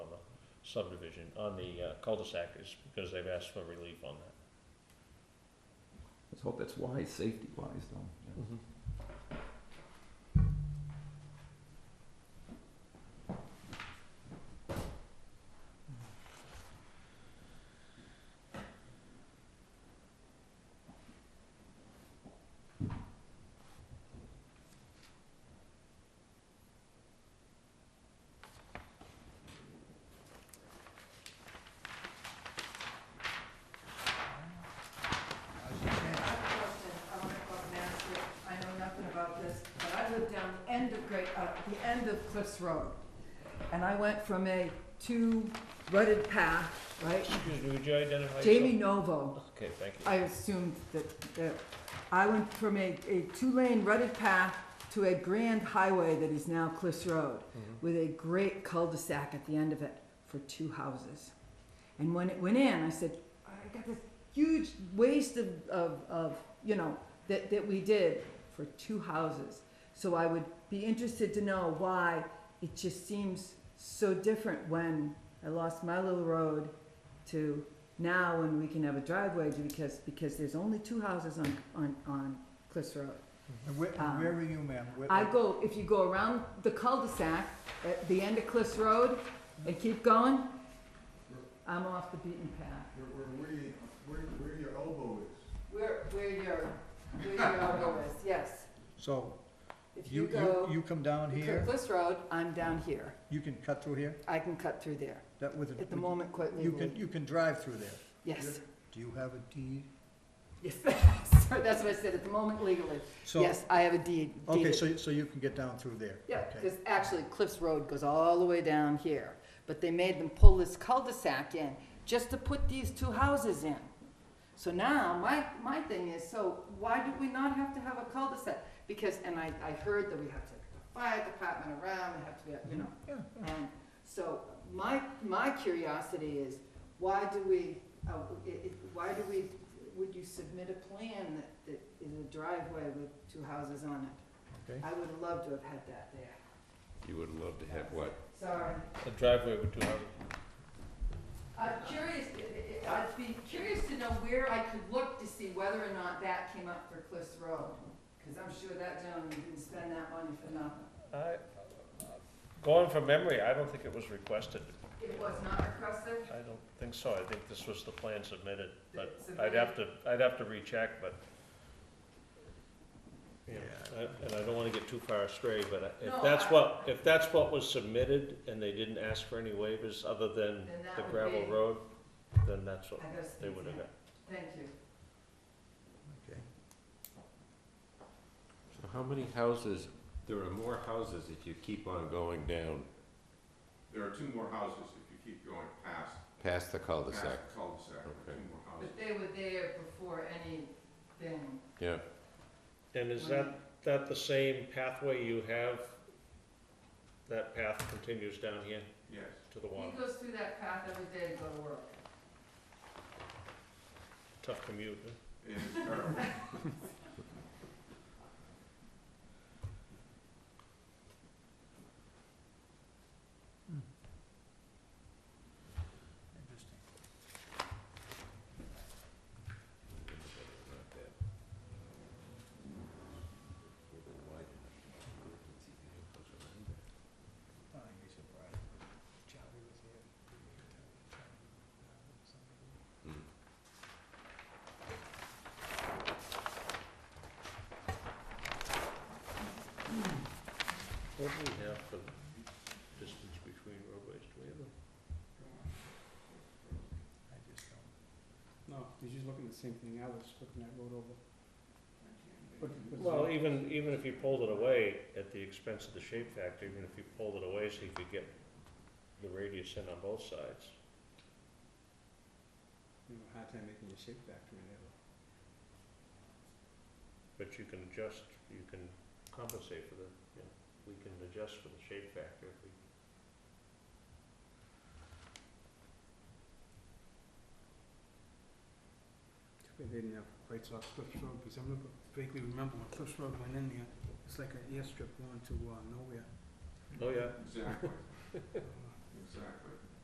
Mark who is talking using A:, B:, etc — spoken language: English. A: subdivision, on the uh, cul-de-sac is because they've asked for relief on that.
B: Let's hope that's wise, safety wise though. Yeah.
C: I I know nothing about this, but I lived down the end of Great, uh, the end of Cliffs Road. And I went from a two rutted path, right?
A: Excuse me, would you identify yourself?
C: Jamie Novo.
A: Okay, thank you.
C: I assumed that, that, I went from a, a two-lane rutted path to a grand highway that is now Cliffs Road
A: Mm-hmm.
C: with a great cul-de-sac at the end of it for two houses. And when it went in, I said, I got this huge waste of, of, of, you know, that, that we did for two houses. So I would be interested to know why it just seems so different when I lost my little road to now when we can have a driveway because, because there's only two houses on, on, on Cliffs Road.
D: And where, and where are you, ma'am? Where-
C: I go, if you go around the cul-de-sac at the end of Cliffs Road and keep going, I'm off the beaten path.
E: Where, where, where, you- where, where your elbow is.
C: Where, where your, where your elbow is, yes.
D: So,
C: If
D: you,
C: you
D: you,
C: go,
D: you come down
C: you cut
D: here,
C: Cliffs Road, I'm down here.
D: you can cut through here,
C: I can cut through there.
D: that with,
C: At the
D: a-
C: moment, quite
D: you can,
C: legally,
D: you can drive through there.
C: yes.
D: Do you have a deed?
C: Yes, Sorry, that's what I said, at the moment legally.
D: So-
C: Yes, I have a deed.
D: Okay,
C: deeded.
D: so, so you can get down through there?
C: Yeah,
D: Okay.
C: because actually Cliffs Road goes all the way down here, but they made them pull this cul-de-sac in just to put these two houses in. So now, my, my thing is, so why do we not have to have a cul-de-sac? Because, and I, I heard that we have to have the fire department around, we have to, have, you know,
D: Yeah, yeah.
C: and so my, my curiosity is, why do we, uh, it, it, why do we, would you submit a plan that, that is a driveway with two houses on it?
D: Okay.
C: I would love to have had that there.
F: You would love to have what?
C: Sorry.
A: A driveway with two houses.
C: I'm curious, I- I- I'd be curious to know where I could look to see whether or not that came up for Cliffs Road. Because I'm sure that gentleman didn't spend that money for nothing.
A: I, going from memory, I don't think it was requested.
C: It was not requested?
A: I don't think so. I think this was the plan submitted, but I'd
C: Submitted.
A: have to, I'd have to recheck, but. you know,
D: Yeah.
A: I- And I don't wanna get too far astray, but I- if
C: No,
A: that's
C: I-
A: what, if that's what was submitted and they didn't ask for any waivers other than
C: Then that
A: the
C: would
A: gravel
C: be-
A: road, then that's what
C: I gotta
A: they
C: speak
A: would have
C: to
A: got.
C: him. Thank you.
D: Okay.
F: So how many houses, there are more houses if you keep on going down
E: There are two more houses if you keep going past,
F: past the
E: past
F: cul-de-sac?
E: the cul-de-sac, there are two more houses.
C: But they were there before anything.
F: Yeah,
A: And is that, that the same pathway you have? That path continues down here
E: Yes,
A: to the
C: He
A: water.
C: goes through that path every day to go to work.
A: Tough commute, huh?
E: it is terrible.
D: Interesting. I think he's surprised. Charlie was here.
F: Hmm.
A: What do we have for distance between roadways? Do we have a?
D: I just don't.
G: No, he's just looking at the same thing I was looking at, road over. But- but-
A: Well, even, even if you pulled it away at the expense of the shape factor, even if you pulled it away so you could get the radius in on both sides.
G: You know, hard time making a shape factor in there.
A: But you can adjust, you can compensate for the, you know, we can adjust for the shape factor if we.
G: Too bad They didn't have rights off Cliffs Road, because I remember, vaguely remember when Cliffs Road went in there, it's like an airstrip going to, uh, nowhere.
A: Oh, yeah.
E: Exactly, exactly.